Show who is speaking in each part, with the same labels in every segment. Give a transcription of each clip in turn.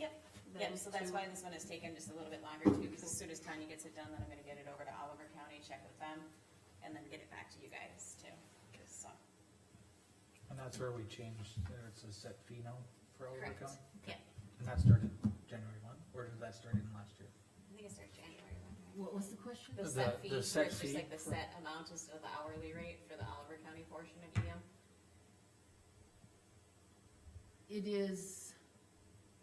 Speaker 1: them.
Speaker 2: Yep, so that's
Speaker 1: to-
Speaker 2: why this one has taken just a little bit longer too, because as soon as Tanya gets it done, then I'm gonna get it over to Oliver County, check with them, and then get it back to you guys too, so.
Speaker 3: And that's where we changed, there it's a set fee now for Oliver
Speaker 2: Correct.
Speaker 3: County?
Speaker 2: Yeah.
Speaker 3: And that started January one, or did that start in last year?
Speaker 2: I think it starts January one. right?
Speaker 1: What was the question?
Speaker 2: The
Speaker 3: The-
Speaker 2: set fee, where
Speaker 3: the
Speaker 2: it's
Speaker 3: set
Speaker 2: just
Speaker 3: fee
Speaker 2: like the
Speaker 3: for-
Speaker 2: set amount is of the hourly rate for the Oliver County portion of E EM.
Speaker 1: It is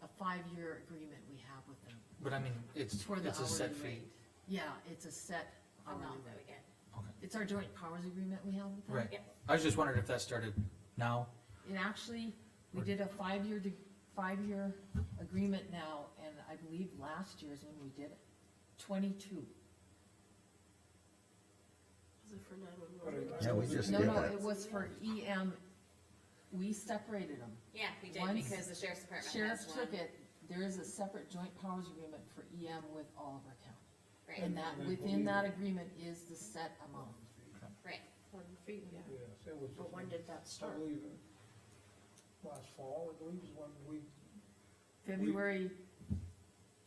Speaker 1: a five-year agreement we have with them
Speaker 3: But I mean, it's,
Speaker 1: for the
Speaker 3: it's a set
Speaker 1: hourly
Speaker 3: fee.
Speaker 1: rate. Yeah, it's a set hourly
Speaker 2: amount that we
Speaker 1: rate.
Speaker 2: get.
Speaker 3: Okay.
Speaker 1: It's our joint powers agreement we have with them.
Speaker 3: Right,
Speaker 2: Yeah.
Speaker 3: I was just wondering if that started now,
Speaker 1: And actually, we
Speaker 3: Or-
Speaker 1: did a five-year, de- five-year agreement now, and I believe last year's when we did it, twenty-two.
Speaker 4: Yeah, we just
Speaker 1: No,
Speaker 4: did
Speaker 1: no,
Speaker 4: that.
Speaker 1: it was for EM, we separated them.
Speaker 2: Yeah, we did,
Speaker 1: Once
Speaker 2: because the sheriff's department
Speaker 1: Sheriff
Speaker 2: has
Speaker 1: took
Speaker 2: one,
Speaker 1: it, there is a separate joint powers agreement for EM with Oliver County. And
Speaker 2: right,
Speaker 1: that,
Speaker 3: Mm-hmm.
Speaker 1: within that agreement is the set amount.
Speaker 2: right.
Speaker 5: Yes, it was.
Speaker 6: But when did that
Speaker 5: I
Speaker 6: start?
Speaker 5: believe uh, last fall, I believe is when we,
Speaker 1: February,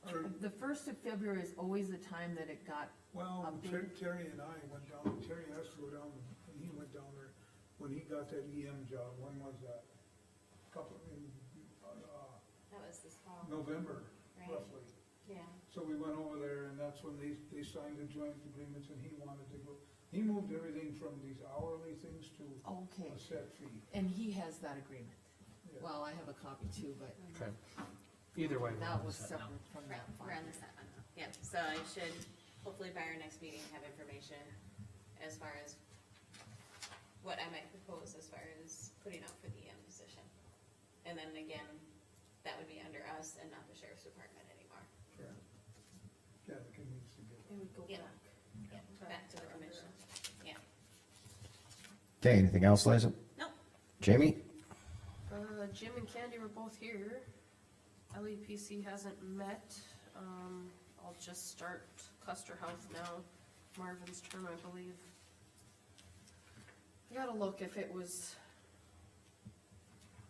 Speaker 5: or,
Speaker 1: the first of February is always the time that it got,
Speaker 5: well,
Speaker 1: Um,
Speaker 5: Ter- Terry and I went down, Terry has to go down, and he went down there when he got that EM job, when was that? Couple, in, uh,
Speaker 2: That was this fall,
Speaker 5: November
Speaker 2: right,
Speaker 5: roughly.
Speaker 2: yeah.
Speaker 5: So we went over there and that's when they, they signed the joint agreements and he wanted to go, he moved everything from these hourly things to
Speaker 1: okay,
Speaker 5: a set fee.
Speaker 1: and he has that agreement.
Speaker 5: Yeah.
Speaker 1: Well, I have a copy too, but
Speaker 3: okay? Either way. we're on
Speaker 1: that
Speaker 3: the
Speaker 1: was
Speaker 3: set now.
Speaker 1: separate from
Speaker 2: Right,
Speaker 1: that
Speaker 2: we're on
Speaker 1: file.
Speaker 2: the set one now, yep, so I should hopefully by our next meeting have information as far as what I might propose as far as putting out for the EM position. And then again, that would be under us and not the sheriff's department anymore,
Speaker 5: Yeah, Yeah, the convenience to get.
Speaker 6: It would go
Speaker 2: Yeah.
Speaker 6: back.
Speaker 2: back to the commission.
Speaker 4: Okay, anything else, Liza?
Speaker 2: No.
Speaker 4: Jamie?
Speaker 6: Uh, Jim and Candy were both here. LEPC hasn't met. Um, I'll just start cluster health now, Marvin's term, I believe. I gotta look if it was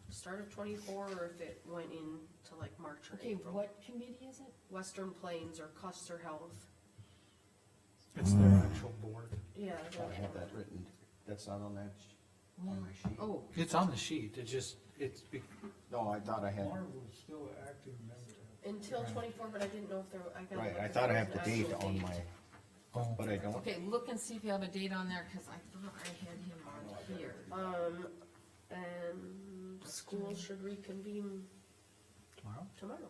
Speaker 6: start of twenty-four or if it went into like March or
Speaker 1: Okay,
Speaker 6: April.
Speaker 1: what committee is it?
Speaker 6: Western Plains or cluster health.
Speaker 3: It's their actual board.
Speaker 6: Yeah.
Speaker 4: I have that written, that's not on that, sh- on my sheet.
Speaker 1: Oh,
Speaker 3: It's on the sheet, it just, it's, be-
Speaker 4: No, I thought I had,
Speaker 5: Marvel's still an active member.
Speaker 6: Until twenty-four, but I didn't know if there, I gotta.
Speaker 4: right,
Speaker 6: look
Speaker 4: I
Speaker 6: if
Speaker 4: thought I
Speaker 6: there
Speaker 4: have
Speaker 6: was
Speaker 4: the
Speaker 6: an
Speaker 4: date
Speaker 6: actual
Speaker 4: on
Speaker 6: date.
Speaker 4: my,
Speaker 3: oh,
Speaker 4: but I don't.
Speaker 1: okay, look and see if you have a date on there, cause I thought I had him on here.
Speaker 6: Um, and school should reconvene
Speaker 3: tomorrow?
Speaker 6: tomorrow,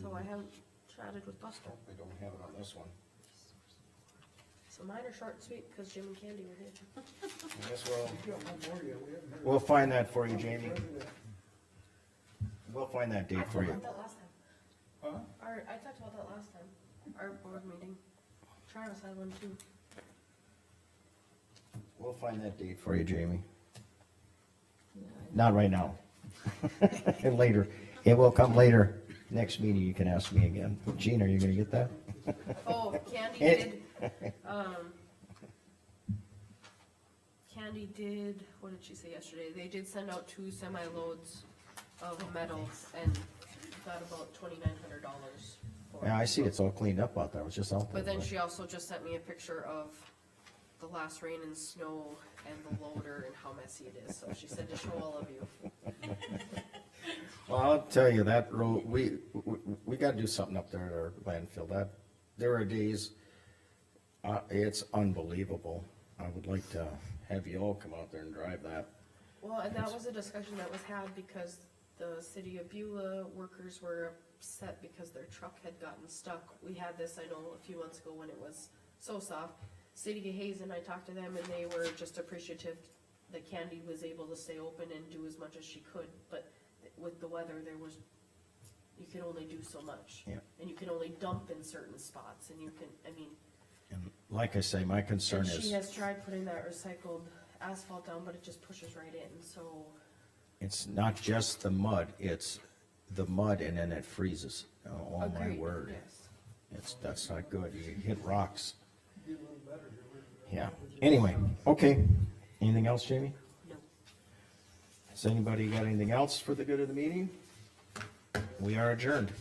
Speaker 6: so
Speaker 4: Mm-hmm.
Speaker 6: I haven't chatted with Buster.
Speaker 4: I don't have it on this one.
Speaker 6: So mine are short and sweet, cause Jim and Candy were here.
Speaker 4: I guess we'll,
Speaker 5: We got one more yet, we haven't heard.
Speaker 4: we'll find that for you,
Speaker 5: Haven't
Speaker 4: Jamie.
Speaker 5: heard of that.
Speaker 4: We'll find that date for you.
Speaker 6: that last time.
Speaker 5: Huh?
Speaker 6: Our, I talked about that last time, our board meeting. Travis had one too.
Speaker 4: We'll find that date for you, Jamie.
Speaker 1: Yeah,
Speaker 4: Not right now. Later. It will come later. Next meeting, you can ask me again. Gene, are you gonna get that?
Speaker 6: Oh, Candy did, um, Candy did, what did she say yesterday? They did send out two semi-loads of metals and got about twenty-nine hundred dollars for it.
Speaker 4: Yeah, I see it's all cleaned up out there. I was just out there.
Speaker 6: But then she also just sent me a picture of the last rain and snow and the loader and how messy it is, so she said to show all of you.
Speaker 4: Well, I'll tell you, that road, we, we, we gotta do something up there at our landfill, that, there are days, uh, it's unbelievable. I would like to have you all come out there and drive that.
Speaker 6: Well, and that was a discussion that was had because the city of Beulah workers were upset because their truck had gotten stuck. We had this, I know, a few months ago when it was so soft. City of Hazen, I talked to them and they were just appreciative that Candy was able to stay open and do as much as she could, but with the weather, there was, you can only do so much.
Speaker 4: Yeah.
Speaker 6: And you can only dump in certain spots and you can, I mean,
Speaker 4: And like I say, my concern
Speaker 6: and she
Speaker 4: is,
Speaker 6: has tried putting that recycled asphalt down, but it just pushes right in, so.
Speaker 4: it's not just the mud, it's the mud and then it freezes. Oh, Oh, my
Speaker 6: Agreed,
Speaker 4: word.
Speaker 6: Yes.
Speaker 4: It's, that's not good. You hit rocks.
Speaker 5: Get a little better here. We're-
Speaker 4: Yeah. Anyway, okay. Anything else, Jamie?
Speaker 6: No.
Speaker 4: Has anybody got anything else for the good of the meeting? We are adjourned.